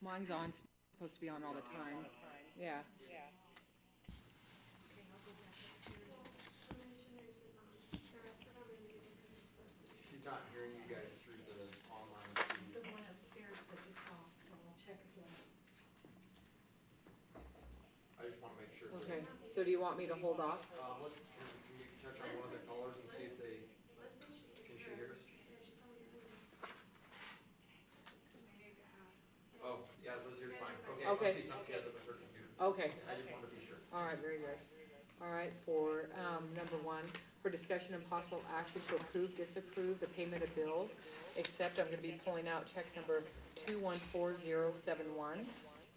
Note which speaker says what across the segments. Speaker 1: Mine's on, it's supposed to be on all the time. Yeah.
Speaker 2: yeah.
Speaker 3: She's not hearing you guys through the online
Speaker 4: The
Speaker 3: feed.
Speaker 4: one upstairs that it's off, so I'll check again.
Speaker 3: I just wanna make sure. that-
Speaker 1: Okay, so do you want me to hold off?
Speaker 3: Um, let, can can we touch on one of the callers and see if they, can she hear us? Oh, yeah, Liz, you're fine. Okay, it
Speaker 1: Okay.
Speaker 3: must be something she has up with her computer.
Speaker 1: Okay,
Speaker 3: I just wanted to be sure.
Speaker 1: all right, very good. All right, for, um, number one, for discussion and possible action to approve, disapprove the payment of bills, except I'm gonna be pulling out check number two one four zero seven one,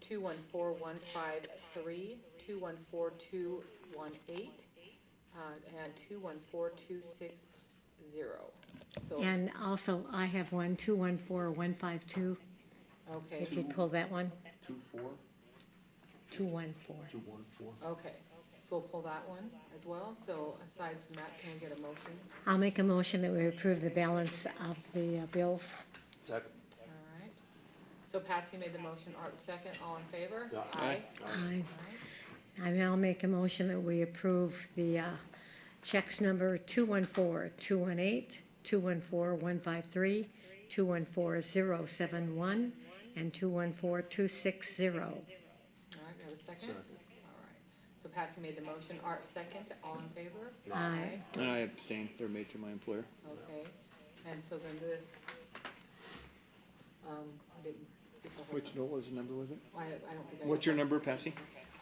Speaker 1: two one four one five three, two one four two one eight, uh, and two one four two six zero. So,
Speaker 5: And also, I have one, two one four one five two,
Speaker 1: okay,
Speaker 5: if you pull that one,
Speaker 6: Two, four,
Speaker 5: two one four.
Speaker 6: two, one, four.
Speaker 1: okay, so we'll pull that one as well, so aside from that, can I get a motion?
Speaker 5: I'll make a motion that we approve the balance of the uh, bills.
Speaker 6: Second.
Speaker 1: All right. So Patsy made the motion, Art second, all in favor?
Speaker 6: Yeah.
Speaker 5: Aye.
Speaker 1: All right.
Speaker 5: I now make a motion that we approve the uh, checks number two one four, two one eight, two one four one five three, two one four zero seven one, and two one four two six zero.
Speaker 1: All right, we have a second? All right. So Patsy made the motion, Art second, all in favor?
Speaker 5: Aye.
Speaker 7: And I abstain, they're made to my employer.
Speaker 1: Okay, and so then this, um, I didn't. get the whole-
Speaker 7: Which, what was the number, was it?
Speaker 1: I, I don't think I.
Speaker 7: What's your number, Patsy?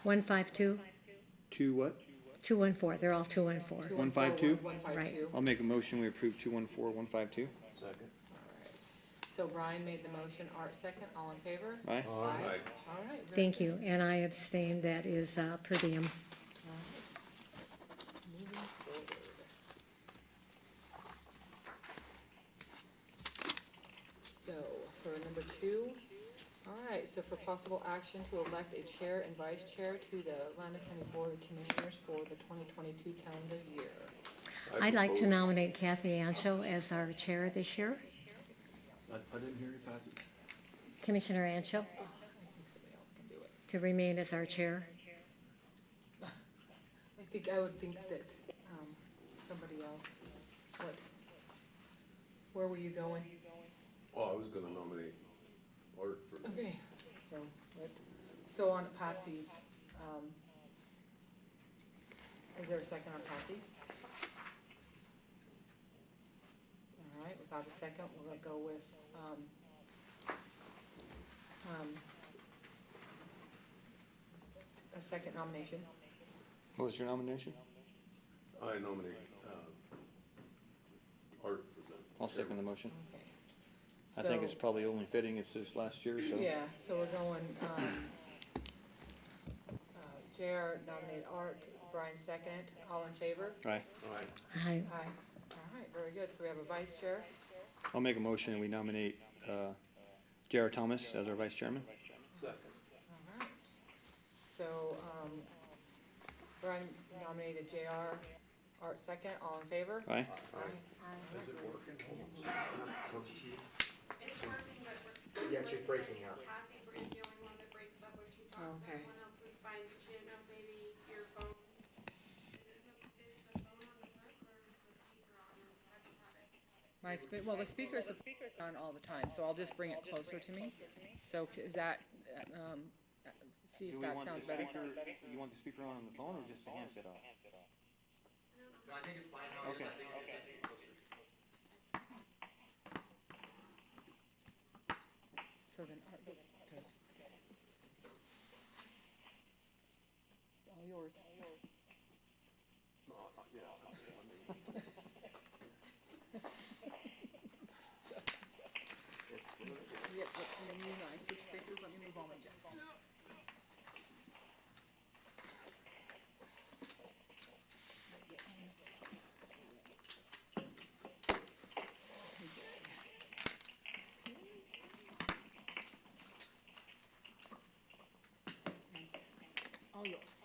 Speaker 5: One five two,
Speaker 7: Two what?
Speaker 5: two one four, they're all two one four.
Speaker 1: Two,
Speaker 7: One
Speaker 1: four,
Speaker 7: five two?
Speaker 1: One five
Speaker 5: Right.
Speaker 1: two.
Speaker 7: I'll make a motion, we approve two one four one five two.
Speaker 6: Second.
Speaker 1: All right. So Brian made the motion, Art second, all in favor?
Speaker 7: Aye?
Speaker 1: Aye. All right. very
Speaker 5: Thank
Speaker 1: good.
Speaker 5: you, and I abstain, that is uh, per diem.
Speaker 1: All right. Moving forward. So, for number two, all right, so for possible action to elect a chair and vice chair to the Lander County Board of Commissioners for the twenty twenty-two calendar year.
Speaker 5: I'd like to nominate Kathy Ancho as our chair this year.
Speaker 6: I, I didn't hear you, Patsy.
Speaker 5: Commissioner Ancho
Speaker 1: I think somebody else can do it.
Speaker 5: to remain as our chair.
Speaker 1: I think, I would think that, um, somebody else would. Where were you going?
Speaker 8: Oh, I was gonna nominate Art for,
Speaker 1: Okay, so, what- so on Patsy's, um, is there a second on Patsy's? All right, without a second, we're gonna go with, um, um, a second nomination.
Speaker 7: What was your nomination?
Speaker 8: I nominate, uh, Art for the.
Speaker 7: I'll second the motion.
Speaker 1: Okay.
Speaker 7: I think it's
Speaker 1: So-
Speaker 7: probably only fitting, it's this last year, so.
Speaker 1: Yeah, so we're going, um, uh, JR nominated Art, Brian second, all in favor?
Speaker 7: Aye.
Speaker 8: Aye.
Speaker 5: I,
Speaker 1: Aye. All right, very good. So we have a vice chair.
Speaker 7: I'll make a motion, we nominate, uh, Jared Thomas as our vice chairman.
Speaker 8: Second.
Speaker 1: All right. So, um, Brian nominated JR, Art second, all in favor?
Speaker 7: Aye?
Speaker 8: Is it working?
Speaker 3: Comes to you.
Speaker 9: It's working, but we're.
Speaker 3: Yeah, it's just breaking up.
Speaker 9: Kathy Bree's the only one that breaks up when she talks,
Speaker 1: Okay.
Speaker 9: everyone else is fine, so she didn't know if maybe your phone. Is it hooked, is the phone on the hook or is the speaker on? I don't have it.
Speaker 1: My, spe- well, the speaker's on all the time, so I'll just bring it closer to me. So c- is that, um, uh, see if that sounds better?
Speaker 7: you want the speaker on on the phone or just the handset off?
Speaker 3: No, I think it's fine how it is. I
Speaker 7: Okay.
Speaker 3: think it just has to be closer.
Speaker 1: So then, uh, Art, go- go. All yours. So- Yeah, uh, and then you and I switch places, let me move on and jump on. All yours.